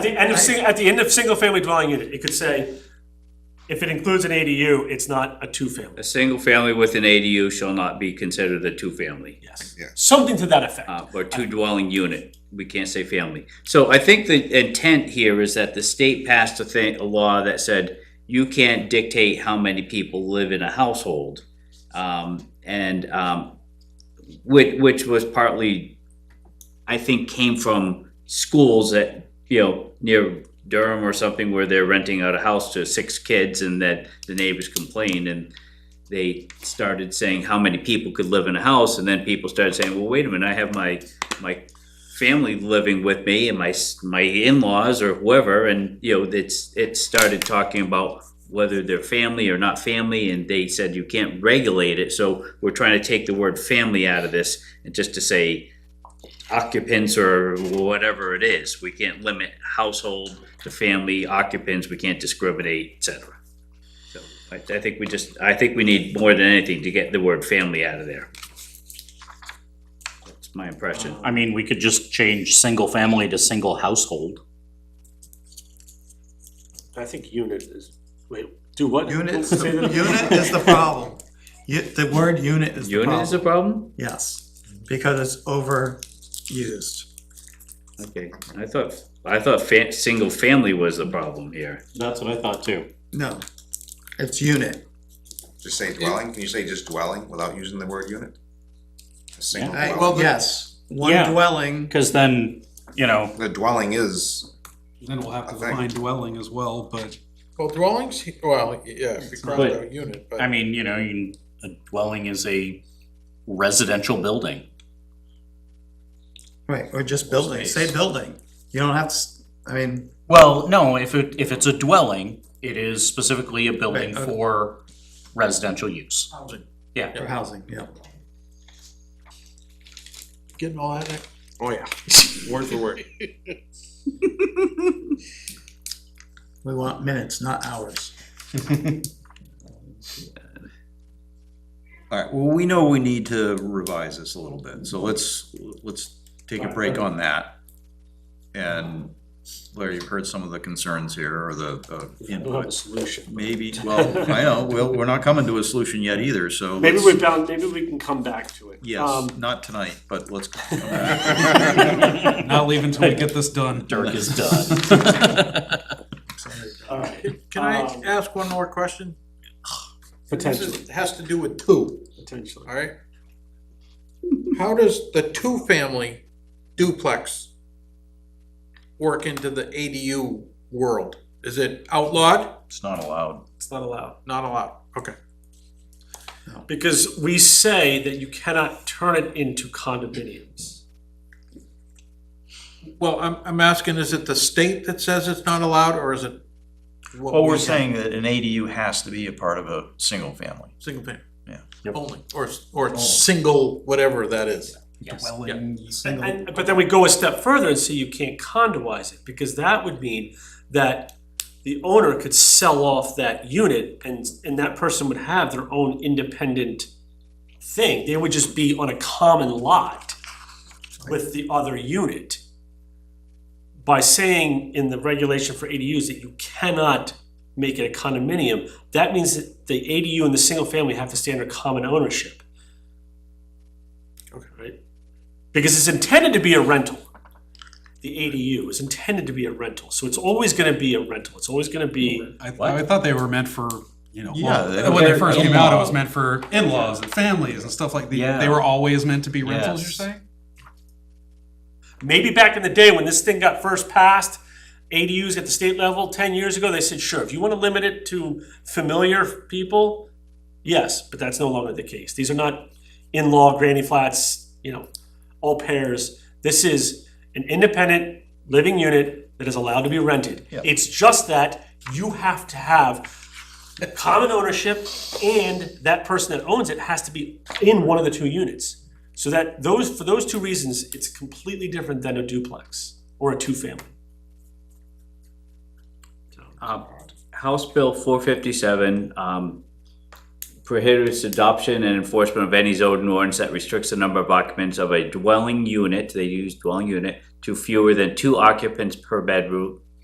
the end of, sing- at the end of single-family dwelling unit, it could say, if it includes an ADU, it's not a two-family, A single family with an ADU shall not be considered a two-family, yes. Yeah. Something to that effect. uh, or two dwelling unit. We can't say family. So I think the intent here is that the state passed a thing, a law that said you can't dictate how many people live in a household. Um, and, um, which, which was partly, I think, came from schools that, you know, near Durham or something where they're renting out a house to six kids and that the neighbors complained and they started saying how many people could live in a house and then people started saying, well, wait a minute, I have my, my family living with me and my, s- my in-laws or whoever, and, you know, it's, it started talking about whether they're family or not family, and they said you can't regulate it, so we're trying to take the word family out of this, and just to say occupants or whatever it is, we can't limit household to family occupants, we can't discriminate, et cetera. So, I, I think we just, I think we need more than anything to get the word family out of there. That's my impression. I mean, we could just change single family to single household. I think unit is, wait, do what? Unit, Say that again. unit is the problem. You, the word unit is the Unit is a problem. problem? Yes, because it's overused. Okay, I thought, I thought fa- single family was the problem here. That's what I thought too. No, it's unit. Just say dwelling, can you say just dwelling without using the word unit? A single I- dwelling, yes, one Yeah. dwelling. Because then, you know, the dwelling is, Then we'll have to I think. define dwelling as well, but Well, dwellings, well, yeah, if you cross But- out unit, I but mean, you know, you- a dwelling is a residential building. Right, or just building, say building. You don't have to, s- I mean, Well, no, if it, if it's a dwelling, it is specifically a building Right, okay. for residential use. housing. Yeah. For housing, yeah. getting all that, oh yeah, word for word. We want minutes, not hours. All right, well, we know we need to revise this a little bit, so let's, let's take a break on that. And Larry, you've heard some of the concerns here, or the, the I don't have a solution. maybe, well, I know, well, we're not coming to a solution yet either, so. Maybe let's- we're bound, maybe we can come back to it. Yes, Um, not tonight, but let's. not leave until we get this done. Dirk is done. All right, Can I Um, ask one more question? This potentially, is- Has to do with two, potentially. all right? How does the two-family duplex work into the ADU world? Is it outlawed? It's not allowed. It's not allowed. Not allowed, okay. Because we say that you cannot turn it into condominiums. Well, I'm, I'm asking, is it the state that says it's not allowed, or is it? what Well, we're we- saying that an ADU has to be a part of a single family. Single family? Yeah. Yep. Only, or, or single, whatever that is. Yes. And, but then we go a step further and say you can't condoize it, because that would mean that the owner could sell off that unit and, and that person would have their own independent thing. They would just be on a common lot with the other unit. By saying in the regulation for ADUs that you cannot make it a condominium, that means that the ADU and the single family have to stay under common ownership. Okay. Right? because it's intended to be a rental. The ADU is intended to be a rental, so it's always gonna be a rental, it's always gonna be, I, I thought they were meant for, you know, Yeah, well, they- when they they're first came out, it was in-law. meant for in-laws and families and stuff like that. Yeah. They were always meant to be rentals, you're Yes. saying? maybe back in the day when this thing got first passed, ADUs at the state level, ten years ago, they said, sure, if you wanna limit it to familiar people, yes, but that's no longer the case, these are not in-law granny flats, you know, all pairs, this is an independent living unit that is allowed to be rented. Yeah. It's just that you have to have common ownership and that person that owns it has to be in one of the two units. So that those, for those two reasons, it's completely different than a duplex or a two-family. Um, House Bill four fifty-seven, um, prohibits adoption and enforcement of any zoning ordinance that restricts the number of occupants of a dwelling unit, they use dwelling unit, to fewer than two occupants per bedroom,